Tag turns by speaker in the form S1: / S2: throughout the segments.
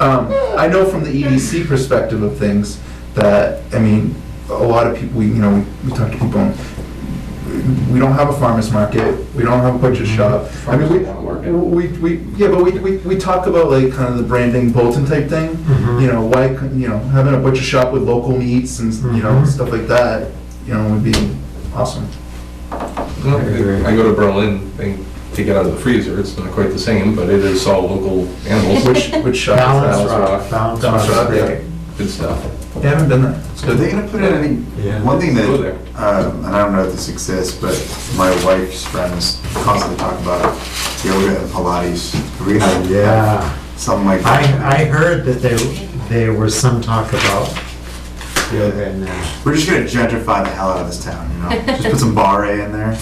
S1: Um, I know from the EDC perspective of things that, I mean, a lot of people, we, you know, we- we talk to people, and we don't have a farmer's market, we don't have a butcher shop. I mean,
S2: Farmers don't work.
S1: we, we, we, yeah, but we, we, we talk about like kind of the branding bulletin type thing.
S3: Mhm.
S1: You know, why, couldn't- you know, having a butcher shop with local meats and, you know,
S3: Mhm.
S1: stuff like that, you know, would be awesome.
S2: No, I go to Berlin and take it out of the freezer, it's not quite the same, but it is all local animals.
S1: Which, which shop is
S3: Balance
S1: that?
S3: Rock, Balance Rock.
S1: Balance Rock, yeah.
S2: Good stuff.
S1: Yeah, I haven't been there. It's
S4: Are
S1: good.
S4: they gonna put in any,
S3: Yeah.
S4: one thing that,
S2: Go there.
S4: um, and I don't know if this exists, but my wife's friends constantly talk about it, yoga and Pilates. Are we gonna have
S3: Yeah,
S4: something like that?
S3: I, I heard that there, there was some talk about yoga and that.
S4: We're just gonna gentrify the hell out of this town, you know? Just put some bar A in there.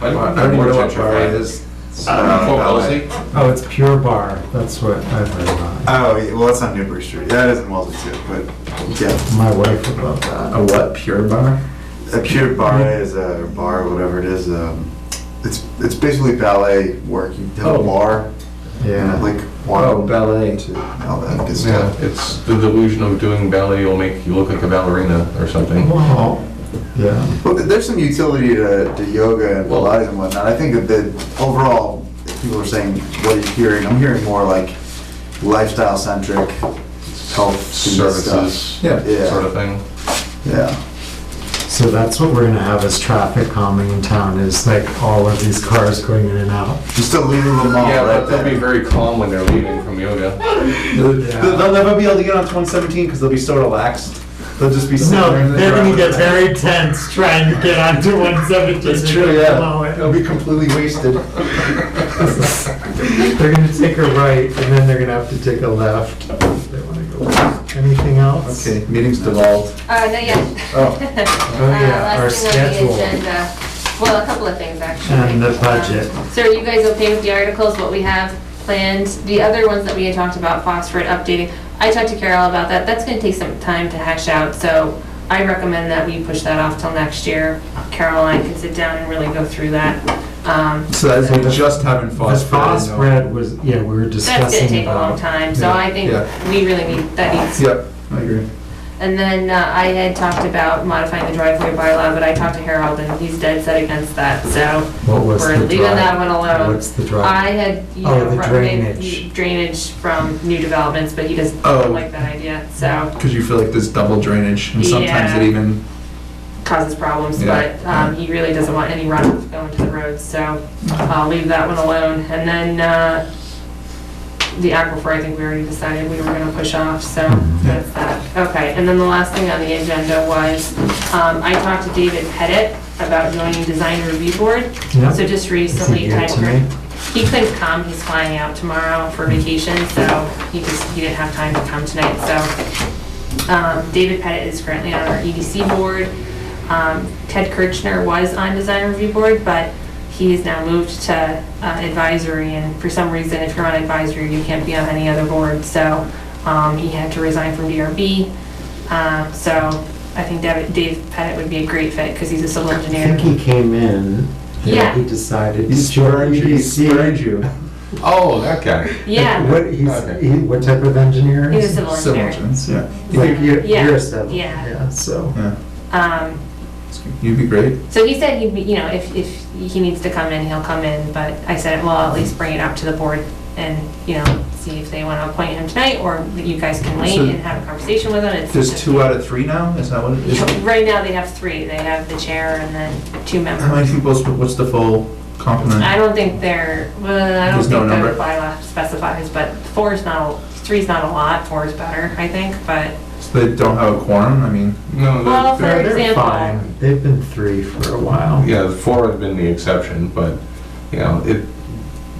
S2: I
S1: I
S2: don't
S1: don't
S2: know
S1: even
S2: more
S1: know what
S2: gentrified.
S1: bar it is.
S4: Uh,
S2: Fort
S4: ballet.
S2: Wellesley?
S3: Oh, it's Pure Bar, that's what I've heard about.
S4: Oh, yeah, well, that's on Newbury Street. Yeah, it is in Wellesley too, but yeah.
S3: My wife would love that.
S1: A what, Pure Bar?
S4: A pure bar is a bar, or whatever it is. Um, it's it's basically ballet work. You have
S1: Oh.
S4: a bar, and
S3: Yeah.
S4: like one,
S1: Oh, ballet.
S4: two, and all that good
S2: Yeah,
S4: stuff.
S2: it's the delusion of doing ballet will make you look like a ballerina or something.
S3: Wow. Yeah,
S4: Well, there's some utility to, to yoga and
S2: Well-
S4: Pilates and whatnot. I think that the, overall, if people are saying, what are you hearing? I'm hearing more like lifestyle centric health
S2: Services,
S1: Yeah.
S4: Yeah.
S2: sort of thing.
S4: Stuff. Yeah.
S3: so that's what we're gonna have as traffic calming in town, is like all of these cars going in and out.
S4: Just a Lulu Mall
S2: Yeah,
S4: right
S2: but they'll be
S4: there.
S2: very calm when they're leaving from yoga.
S1: They'll they'll never be able to get onto 117 because they'll be so relaxed. They'll just be sitting there.
S3: No,
S1: in the
S3: they're gonna get
S1: driveway.
S3: very tense trying to get onto one seventeen.
S1: That's true, yeah. They'll be completely wasted.
S3: They're gonna take a right, and then they're gonna have to take a left. if They wanna go. left. Anything else?
S1: Okay, meeting's devolved.
S5: Uh, no, yeah.
S1: Oh.
S3: Oh, yeah,
S5: Uh,
S3: our
S5: last thing on the
S3: schedule.
S5: agenda. Well, a couple of things, actually.
S3: And the budget.
S5: Um, So are you guys okay with the articles, what we have planned? The other ones that we had talked about, phosphorus updating, I talked to Carol about that. That's gonna take some time to hash out, so I recommend that we push that off till next year. Carol and I can sit down and really go through that. Um,
S1: So that's we just having
S3: The
S1: phosphorus.
S3: FOS bread was, yeah, we were
S5: That's gonna
S3: discussing
S5: take a long
S3: about.
S5: time, so
S1: Yeah,
S5: I think
S1: yeah.
S5: we really need, that needs
S1: Yep, I agree.
S5: And then uh, I had talked about modifying the driveway bylaw, but I talked to Harold and he's dead set against that, so
S3: What was
S5: we're
S3: the
S5: leaving that
S3: drive?
S5: one alone.
S3: What's the
S5: I
S3: drive?
S5: had, you
S3: Oh,
S5: know,
S3: the
S5: recommended
S3: drainage.
S5: drainage from new developments, but he doesn't
S1: Oh.
S5: like that idea, so
S1: Because you feel like there's double drainage and sometimes it
S5: Yeah.
S1: even,
S5: causes problems,
S1: Yeah.
S5: but um, he really doesn't want any runoff going to the roads, so I'll leave that one alone. And then uh, the aquifer, I think we already decided we were gonna push off, so that's that. Okay, and then the last thing on the agenda was, um, I talked to David Pettit about joining Design Review Board.
S3: Yeah.
S5: So
S3: Is
S5: just
S3: it
S5: recently,
S3: here
S5: time
S3: tonight?
S5: he couldn't come, he's flying out tomorrow for vacation, so he just, he didn't have time to come tonight, so. Um, David Pettit is currently on our EDC board. Um, Ted Kirchner was on design review board, but he has now moved to uh, advisory, and for some reason, if you're on advisory, you can't be on any other board, so, um, he had to resign from DRB. Um, so I think David- Dave Pettit would be a great fit, because he's a civil
S3: I
S5: engineer.
S3: think he came in,
S5: Yeah.
S3: and he decided
S1: he
S3: to join
S1: spurned you. He
S3: EDC.
S1: spurned you.
S2: Oh, that guy.
S5: Yeah.
S3: What, he's,
S2: Okay.
S3: he- what type of engineer
S5: He's
S3: is
S5: a
S3: he?
S5: civil
S1: So
S5: engineer.
S1: much, yeah. You
S3: Like,
S1: think,
S3: you're,
S5: Yeah,
S3: you're a civil,
S5: yeah.
S3: yeah, so.
S1: yeah,
S5: Um,
S1: you'd be great.
S5: So he said he'd be, you know, if, if he needs to come in, he'll come in, but I said, well, I'll at least bring it up to the board and, you know, see if they want to appoint him tonight, or you guys can wait
S1: So-
S5: and have a conversation with him. It's
S1: There's
S5: just-
S1: two out of three now, is that what it is?
S5: Right now, they have three. They have the chair and then two
S1: How many
S5: members.
S1: people's, what's the full complement?
S5: I don't think they're, well, I don't
S1: There's no
S5: think
S1: number?
S5: the bylaw specifies, but four is not, a- three's not a lot, four is better, I think, but,
S1: So they don't have a quorum, I mean,
S2: No,
S5: Well,
S2: that-
S5: for
S3: They're- They're
S5: example-
S3: fine, they've been three for a while.
S2: yeah, the four have been the exception, but, you know, it,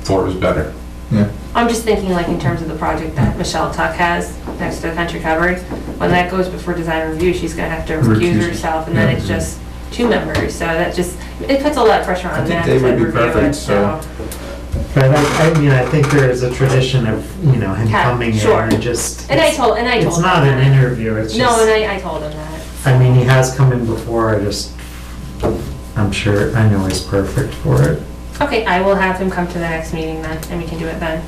S2: four is better.
S1: yeah.
S5: I'm just thinking like in terms of the project that Michelle Tuck has next to the country cupboard. When that goes before design review, she's gonna have to
S1: Recuse.
S5: recuse herself and then it's
S1: Yeah.
S5: just two members. So that just, it puts a lot of pressure
S1: I
S5: on
S1: think
S5: them
S1: they
S5: to
S1: would be
S5: review
S1: perfect,
S5: it, so.
S3: But I, I mean, I think there is a tradition of, you know, him
S5: Yeah,
S3: coming in
S5: sure.
S3: and just.
S5: And I told, and I told.
S3: It's
S5: them
S3: not an
S5: that.
S3: interview, it's
S5: No, and
S3: just,
S5: I, I told him that.
S3: I mean, he has come in before, I just, I'm sure, I know he's perfect for it.
S5: Okay, I will have him come to the next meeting then and we can do it then.